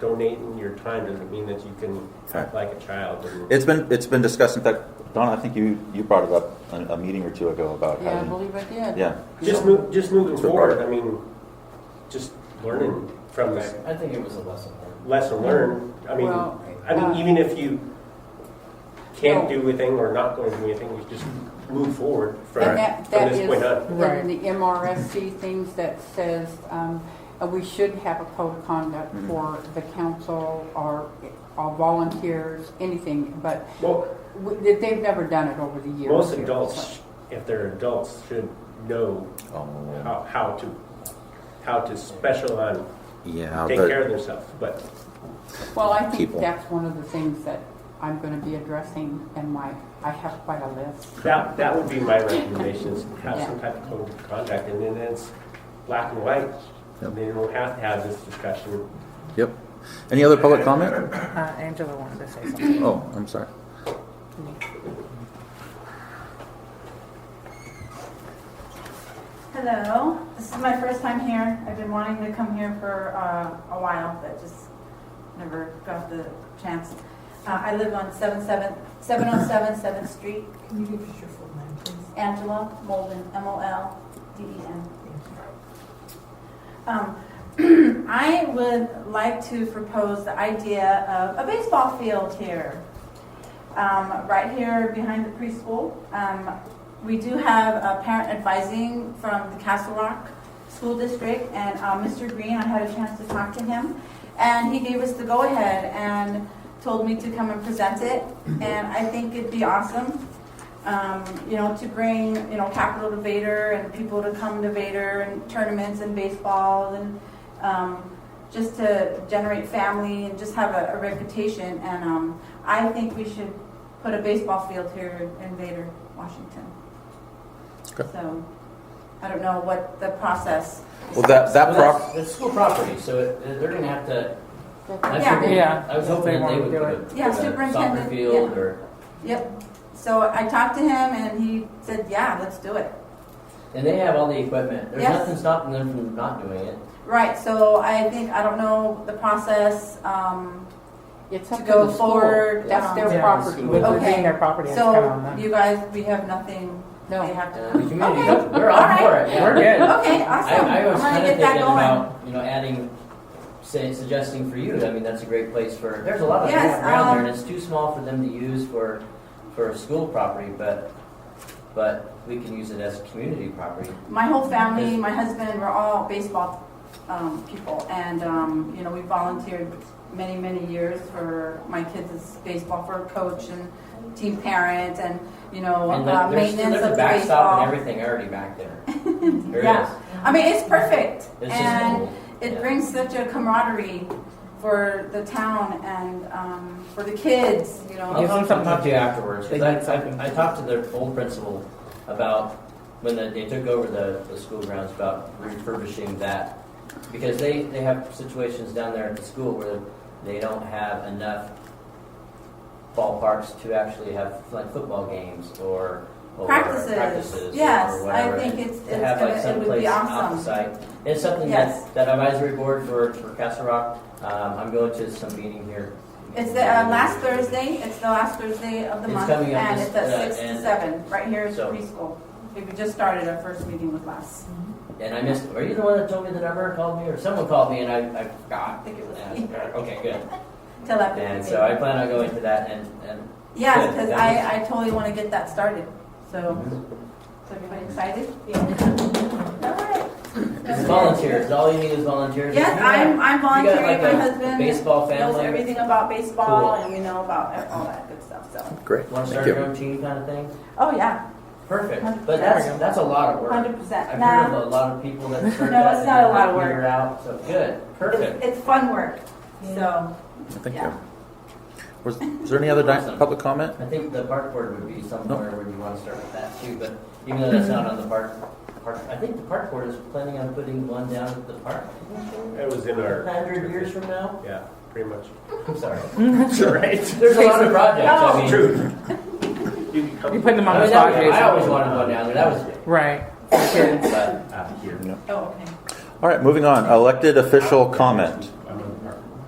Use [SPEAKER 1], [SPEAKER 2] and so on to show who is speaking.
[SPEAKER 1] donating your time doesn't mean that you can act like a child. and-
[SPEAKER 2] It's been, it's been discussed, in fact, Donna, I think you, you brought it up a, a meeting or two ago about
[SPEAKER 3] Yeah, I
[SPEAKER 2] having,
[SPEAKER 3] believe I did.
[SPEAKER 2] yeah.
[SPEAKER 1] Just move, just moving
[SPEAKER 2] That's what
[SPEAKER 1] forward,
[SPEAKER 2] part-
[SPEAKER 1] I mean, just learning from this
[SPEAKER 4] I think it was a lesson learned.
[SPEAKER 1] lesson learned. I mean,
[SPEAKER 3] Well,
[SPEAKER 1] I mean,
[SPEAKER 3] uh,
[SPEAKER 1] even if you can't
[SPEAKER 3] no.
[SPEAKER 1] do anything or not going to do anything, you just move forward from,
[SPEAKER 3] And that,
[SPEAKER 1] from
[SPEAKER 3] that
[SPEAKER 1] this
[SPEAKER 3] is,
[SPEAKER 1] point on.
[SPEAKER 3] that in the MRSC things that says, um, uh, we should have a code of conduct
[SPEAKER 2] Mhm.
[SPEAKER 3] for the council or, or volunteers, anything, but
[SPEAKER 1] Well,
[SPEAKER 3] we- they- they've never done it over the years.
[SPEAKER 1] most
[SPEAKER 3] here,
[SPEAKER 1] adults,
[SPEAKER 3] so.
[SPEAKER 1] if they're adults, should know
[SPEAKER 2] Oh,
[SPEAKER 1] how, how to, how to special on,
[SPEAKER 2] Yeah,
[SPEAKER 1] take care
[SPEAKER 2] but,
[SPEAKER 1] of themselves, but
[SPEAKER 3] Well, I think
[SPEAKER 2] people.
[SPEAKER 3] that's one of the things that I'm gonna be addressing in my, I have quite a list.
[SPEAKER 1] that, that would be my recommendation, is have
[SPEAKER 3] Yeah.
[SPEAKER 1] some type of code of conduct, and then it's black and white.
[SPEAKER 2] Yep.
[SPEAKER 1] And then we'll have to have this discussion.
[SPEAKER 2] yep. Any other public comment?
[SPEAKER 5] Uh, Angela wanted to say something.
[SPEAKER 2] Oh, I'm sorry.
[SPEAKER 6] Hello, this is my first time here. I've been wanting to come here for uh, a while, but just never got the chance. Uh, I live on 77 707 7th oh Street,
[SPEAKER 5] Can you give us your full name, please?
[SPEAKER 6] Angela Molden, M-O-L-D-E-N. Um, I would like to propose the idea of a baseball field here, um, right here behind the preschool. Um, we do have a parent advising from the Castle Rock School District, and uh, Mr. Green, I had a chance to talk to him, and he gave us the go ahead and told me to come and present it, and I think it'd be awesome um, you know, to bring, you know, capital to Vader and people to come to Vader and tournaments and baseball and um, just to generate family and just have a, a reputation. And um, I think we should put a baseball field here in Vader, Washington.
[SPEAKER 2] Okay.
[SPEAKER 6] So I don't know what the process.
[SPEAKER 2] Well, that, that
[SPEAKER 4] Well,
[SPEAKER 2] prop,
[SPEAKER 4] that's- That's school property, so it- they're gonna have to, that's
[SPEAKER 6] Yeah.
[SPEAKER 4] what they-
[SPEAKER 5] Yeah,
[SPEAKER 4] I was
[SPEAKER 5] if they
[SPEAKER 4] hoping that they
[SPEAKER 5] wanna
[SPEAKER 4] would
[SPEAKER 5] do
[SPEAKER 4] put a-
[SPEAKER 5] it.
[SPEAKER 6] Yeah,
[SPEAKER 4] put a soccer
[SPEAKER 6] superintendent,
[SPEAKER 4] field
[SPEAKER 6] yeah.
[SPEAKER 4] or,
[SPEAKER 6] Yep. So I talked to him and he said, yeah, let's do it.
[SPEAKER 4] and they have all the equipment. There's
[SPEAKER 6] Yes.
[SPEAKER 4] nothing stopping them from not doing it.
[SPEAKER 6] Right, so I think, I don't know the process, um,
[SPEAKER 3] It's
[SPEAKER 6] to
[SPEAKER 3] up to
[SPEAKER 6] go
[SPEAKER 3] the school.
[SPEAKER 6] forward.
[SPEAKER 3] That's
[SPEAKER 6] um,
[SPEAKER 3] their
[SPEAKER 5] Yeah.
[SPEAKER 3] property.
[SPEAKER 5] With
[SPEAKER 6] Okay.
[SPEAKER 5] it being their property, it's kind of on
[SPEAKER 6] So
[SPEAKER 5] them.
[SPEAKER 6] you guys, we have nothing, they
[SPEAKER 3] No,
[SPEAKER 6] have
[SPEAKER 4] Uh, the
[SPEAKER 6] to.
[SPEAKER 4] community,
[SPEAKER 6] Okay.
[SPEAKER 4] we're
[SPEAKER 6] All
[SPEAKER 4] all
[SPEAKER 6] right.
[SPEAKER 4] for it. yeah.
[SPEAKER 5] We're good.
[SPEAKER 6] Okay, awesome.
[SPEAKER 4] I, I
[SPEAKER 6] I'm
[SPEAKER 4] was
[SPEAKER 6] gonna
[SPEAKER 4] kind of
[SPEAKER 6] get that
[SPEAKER 4] thinking
[SPEAKER 6] going.
[SPEAKER 4] about, you know, adding, say, suggesting for you, I mean, that's a great place for, there's a lot of
[SPEAKER 6] Yes,
[SPEAKER 4] land around there,
[SPEAKER 6] um,
[SPEAKER 4] and it's too small for them to use for, for school property, but, but we can use it as community property.
[SPEAKER 6] My whole family, my husband, we're all baseball, um, people and, um, you know, we volunteered many, many years for my kids' is baseball for coach and team parent and, you know,
[SPEAKER 4] And
[SPEAKER 6] uh,
[SPEAKER 4] there- there's, still-
[SPEAKER 6] maintenance
[SPEAKER 4] there's
[SPEAKER 6] of
[SPEAKER 4] a
[SPEAKER 6] the
[SPEAKER 4] backstop and
[SPEAKER 6] baseball.
[SPEAKER 4] everything already back there. There
[SPEAKER 6] Yeah.
[SPEAKER 4] is.
[SPEAKER 6] I mean, it's perfect.
[SPEAKER 4] It's just
[SPEAKER 6] And
[SPEAKER 4] old.
[SPEAKER 6] it
[SPEAKER 4] Yeah.
[SPEAKER 6] brings such a camaraderie for the town and um, for the kids, you know.
[SPEAKER 4] I'll talk, I'll talk to you afterwards,
[SPEAKER 5] They
[SPEAKER 4] because
[SPEAKER 5] need
[SPEAKER 4] I,
[SPEAKER 5] something.
[SPEAKER 4] I, I talked to the old principal about when the, they took over the, the school grounds about refurbishing that. Because they, they have situations down there at the school where they don't have enough ballparks to actually have like football games or, or
[SPEAKER 6] Practices.
[SPEAKER 4] practices
[SPEAKER 6] Yes,
[SPEAKER 4] or
[SPEAKER 6] I
[SPEAKER 4] whatever.
[SPEAKER 6] think it's-
[SPEAKER 4] To
[SPEAKER 6] it's
[SPEAKER 4] have like
[SPEAKER 6] gonna- it would be
[SPEAKER 4] someplace off the
[SPEAKER 6] awesome.
[SPEAKER 4] site. It's something
[SPEAKER 6] Yes.
[SPEAKER 4] that, that advisory board for, for Castle Rock, um, I'm going to some meeting here.
[SPEAKER 6] It's the uh, last Thursday, it's the last Thursday of the
[SPEAKER 4] It's
[SPEAKER 6] month,
[SPEAKER 4] coming up
[SPEAKER 6] and
[SPEAKER 4] this-
[SPEAKER 6] it's at
[SPEAKER 4] uh,
[SPEAKER 6] six to
[SPEAKER 4] and-
[SPEAKER 6] seven, right here at the
[SPEAKER 4] So-
[SPEAKER 6] preschool. We just started our first meeting with Les.
[SPEAKER 4] And I missed. Are you the one that told me the number? Called me, or someone called me, and I, I forgot.
[SPEAKER 6] I think it was me.
[SPEAKER 4] And I- okay, good.
[SPEAKER 6] Telepathy.
[SPEAKER 4] And so I plan on going to that, and and
[SPEAKER 6] Yes,
[SPEAKER 4] Good,
[SPEAKER 6] because
[SPEAKER 4] that
[SPEAKER 6] I, I totally want to get that started, so,
[SPEAKER 4] Mm-hmm.
[SPEAKER 6] is everybody excited? Yeah.
[SPEAKER 4] it's volunteers. All you need is volunteers.
[SPEAKER 6] Yes,
[SPEAKER 4] You got-
[SPEAKER 6] I'm, I'm
[SPEAKER 4] you got, like,
[SPEAKER 6] volunteering, my
[SPEAKER 4] a
[SPEAKER 6] husband
[SPEAKER 4] Baseball
[SPEAKER 6] knows
[SPEAKER 4] family.
[SPEAKER 6] everything about baseball,
[SPEAKER 4] Cool.
[SPEAKER 6] and we know about all that good stuff, so.
[SPEAKER 2] great,
[SPEAKER 4] Want to
[SPEAKER 2] thank
[SPEAKER 4] start your
[SPEAKER 2] you.
[SPEAKER 4] own team, kind of thing.
[SPEAKER 6] Oh, yeah,
[SPEAKER 4] Perfect.
[SPEAKER 6] There
[SPEAKER 4] But that's
[SPEAKER 5] we go.
[SPEAKER 4] that's a lot of work.
[SPEAKER 6] hundred
[SPEAKER 4] I've
[SPEAKER 6] percent,
[SPEAKER 4] heard
[SPEAKER 6] nah,
[SPEAKER 4] of a lot of people that start
[SPEAKER 6] No,
[SPEAKER 4] that
[SPEAKER 6] it's
[SPEAKER 4] and
[SPEAKER 6] not a
[SPEAKER 4] they
[SPEAKER 6] lot of
[SPEAKER 4] figure it out. So good, perfect.
[SPEAKER 6] it's fun work, so,
[SPEAKER 2] Thank you.
[SPEAKER 6] Yeah.
[SPEAKER 2] Was, is there any other di-
[SPEAKER 4] Awesome.
[SPEAKER 2] public comment?
[SPEAKER 4] I think the park board would be somewhere where you want to start with that too, but even though that's not on the park, park, I think the park board is planning on putting one down at the park.
[SPEAKER 1] It was in our.
[SPEAKER 4] Hundred years from now?
[SPEAKER 1] Yeah, pretty much.
[SPEAKER 4] I'm sorry.
[SPEAKER 1] Right.
[SPEAKER 4] There's a lot of projects, I mean.
[SPEAKER 1] True. You can come Uh,
[SPEAKER 5] You put them
[SPEAKER 4] I
[SPEAKER 5] on
[SPEAKER 4] mean, that
[SPEAKER 5] the spot,
[SPEAKER 4] was- I
[SPEAKER 5] Jason.
[SPEAKER 4] always wanted one down there, that was uh,
[SPEAKER 5] Right.
[SPEAKER 4] good, but.
[SPEAKER 1] out here.
[SPEAKER 6] oh, okay.
[SPEAKER 2] All right, moving on, elected official comment.